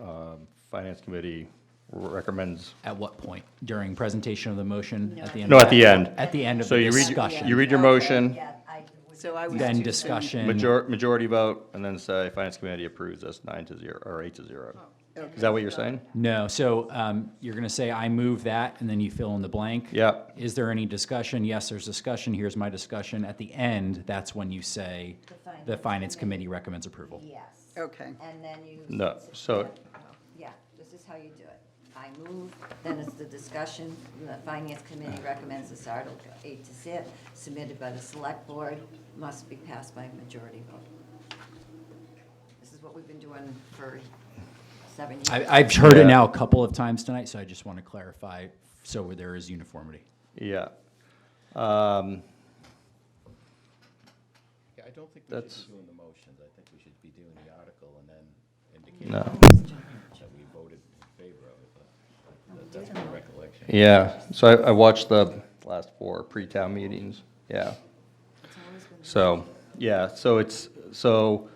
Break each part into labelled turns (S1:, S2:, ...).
S1: um, Finance Committee recommends.
S2: At what point? During presentation of the motion? At the end?
S1: No,
S2: of
S1: at the
S2: that-
S1: end.
S2: At the end of
S1: So
S2: the
S1: you read,
S2: discussion.
S1: your- you read your motion,
S3: Yeah, I would.
S4: So I was.
S2: Then
S4: too-
S2: discussion.
S1: major, majority vote, and then say Finance Committee approves us nine to zero, or eight to zero. Is that what you're saying?
S2: No, so um, you're going to say, I move that, and then you fill in the blank?
S1: Yeah.
S2: Is there any discussion? Yes, there's discussion. Here's my discussion. At the end, that's when you say,
S3: finance
S2: the Finance Committee recommends approval.
S3: Yes.
S4: Okay.
S3: And then you.
S1: No, so-
S3: Yeah, this is how you do it. I move, then it's the discussion, the finance committee recommends this article eight to zip, submitted by the select board, must be passed by majority vote. This is what we've been doing for seven years.
S2: I- I've heard it
S1: Yeah.
S2: now a couple of times tonight, so I just want to clarify, so where there is uniformity.
S1: Yeah. Um,
S5: Yeah, I don't think we
S1: That's-
S5: should be doing the motions. I think we should be doing the article and then indicate
S1: No.
S5: that we voted in favor of it, but that- that's my recollection.
S1: Yeah, so I, I watched the last four pre-town meetings, yeah. So, yeah, so it's, so,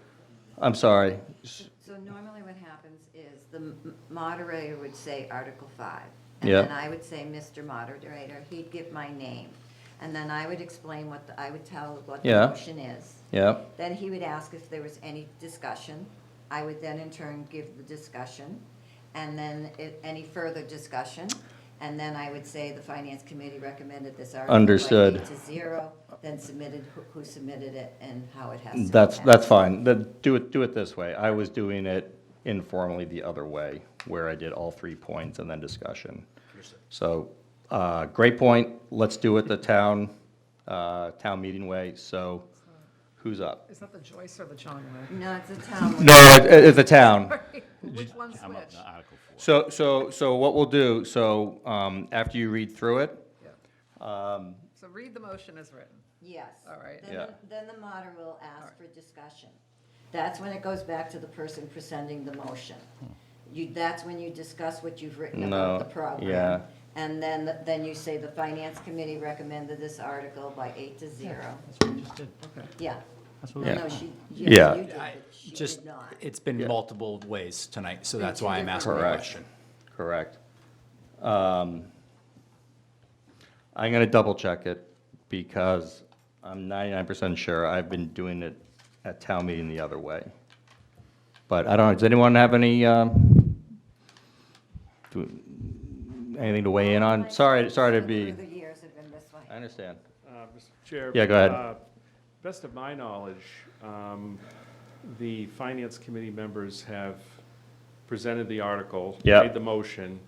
S1: I'm sorry, s-
S3: So normally what happens is the m- moderator would say Article 5.
S1: Yeah.
S3: And then I would say, Mr. Moderator, he'd give my name. And then I would explain what, the- I would tell what the
S1: Yeah.
S3: motion is.
S1: yeah,
S3: Then he would ask if there was any discussion. I would then in turn give the discussion, and then i- any further discussion. And then I would say the finance committee recommended this article. by
S1: Understood.
S3: eight To zero, then submitted, who- who submitted it and how it has to. be
S1: that's,
S3: passed.
S1: that's fine, then do it, do it this way. I was doing it informally the other way, where I did all three points and then discussion. So, uh, great point, let's do it the town, uh, town meeting way, so who's up?
S4: Is that the Joyce or the John
S3: No, it's a town.
S1: No, it, it's a town.
S4: way? Which one's which?
S5: Article four.
S1: So, so, so what we'll do, so, um, after you read through it,
S4: Yeah. So read the motion as written.
S3: Yes.
S4: All right.
S3: Then,
S1: Yeah.
S3: the- then the moderator will ask for discussion. That's when it goes back to the person presenting the motion. You, that's when you discuss what you've written about
S1: No,
S3: the program.
S1: yeah.
S3: And then, the- then you say the finance committee recommended this article by eight to zero.
S5: That's what we just did.
S3: Yeah. No,
S1: did.
S3: no, she,
S1: Yeah.
S3: yeah, you did,
S2: I-
S3: but she
S2: Just,
S3: did not.
S2: it's been
S1: Yeah.
S2: multiple ways tonight, so that's why I'm asking the
S1: Correct.
S2: question.
S1: correct? Um, I'm gonna double check it because I'm ninety-nine percent sure I've been doing it at town meeting the other way. But I don't know, does anyone have any, um, do, anything to weigh in on? Sorry, sorry to be,
S3: Through the years have been this way.
S1: I understand.
S6: Uh, Mr. Chair.
S1: Yeah, go ahead.
S6: uh, Best of my knowledge, um, the finance committee members have presented the article.
S1: Yeah.
S6: Made the motion,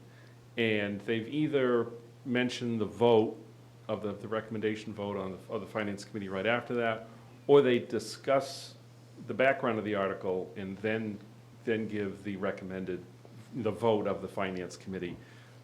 S6: and they've either mentioned the vote of the, the recommendation vote on, the- of the finance committee right after that, or they discuss the background of the article and then, then give the recommended, the vote of the finance committee.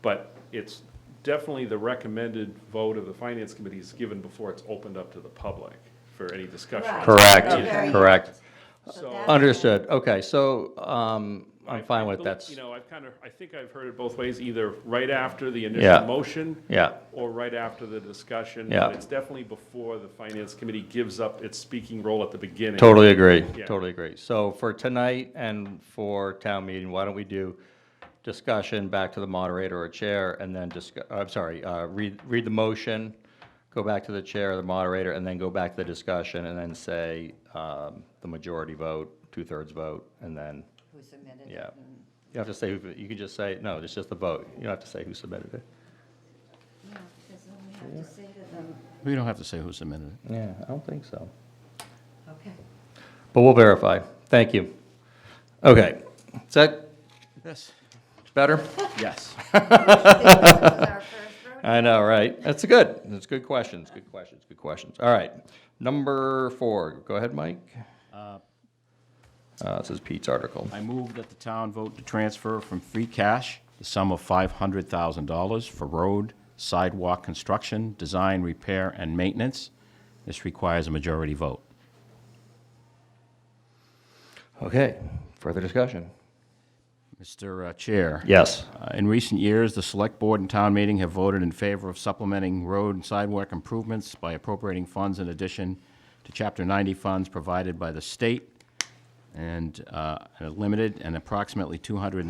S6: But it's definitely the recommended vote of the finance committee is given before it's opened up to the public for any discussion.
S3: Right.
S1: Correct,
S3: Okay.
S1: correct.
S3: So
S6: So-
S3: that's-
S1: Understood, okay, so, um, I'm
S6: I-
S1: fine
S6: I
S1: with
S6: believe-
S1: that's,
S6: You know, I've kind of, I think I've heard it both ways, either right after the
S1: Yeah.
S6: initial motion.
S1: Yeah.
S6: Or right after the discussion.
S1: Yeah.
S6: But It's definitely before the finance committee gives up its speaking role at the beginning.
S1: Totally agree,
S6: Yeah.
S1: totally agree. So for tonight and for town meeting, why don't we do discussion back to the moderator or chair, and then discuss, I'm sorry, uh, read, read the motion, go back to the chair or the moderator, and then go back to the discussion, and then say um, the majority vote, two-thirds vote, and then,
S3: Who submitted it. Mm.
S1: yeah.
S3: and-
S1: You don't have to say, who you can just say, no, it's just the vote. You don't have to say who submitted it.
S3: No, because then we have to say to them,
S5: We don't have to say who submitted it.
S1: Yeah, I don't think so.
S3: okay.
S1: But we'll verify. Thank you. Okay, is that
S5: Yes.
S1: better?
S5: Yes.
S3: Our first vote.
S1: I know, right? That's good. That's good questions, good questions, good questions. All right. Number four, go ahead, Mike. Uh, This is Pete's article.
S5: I move that the town vote to transfer from free cash the sum of $500,000 for road, sidewalk construction, design, repair, and maintenance. This requires a majority vote.
S1: Okay, further discussion?
S5: Mr. Chair.
S1: Yes.
S5: Uh, In recent years, the Select Board and Town Meeting have voted in favor of supplementing road and sidewalk improvements by appropriating funds in addition to Chapter 90 funds provided by the state, and uh, limited and approximately 200.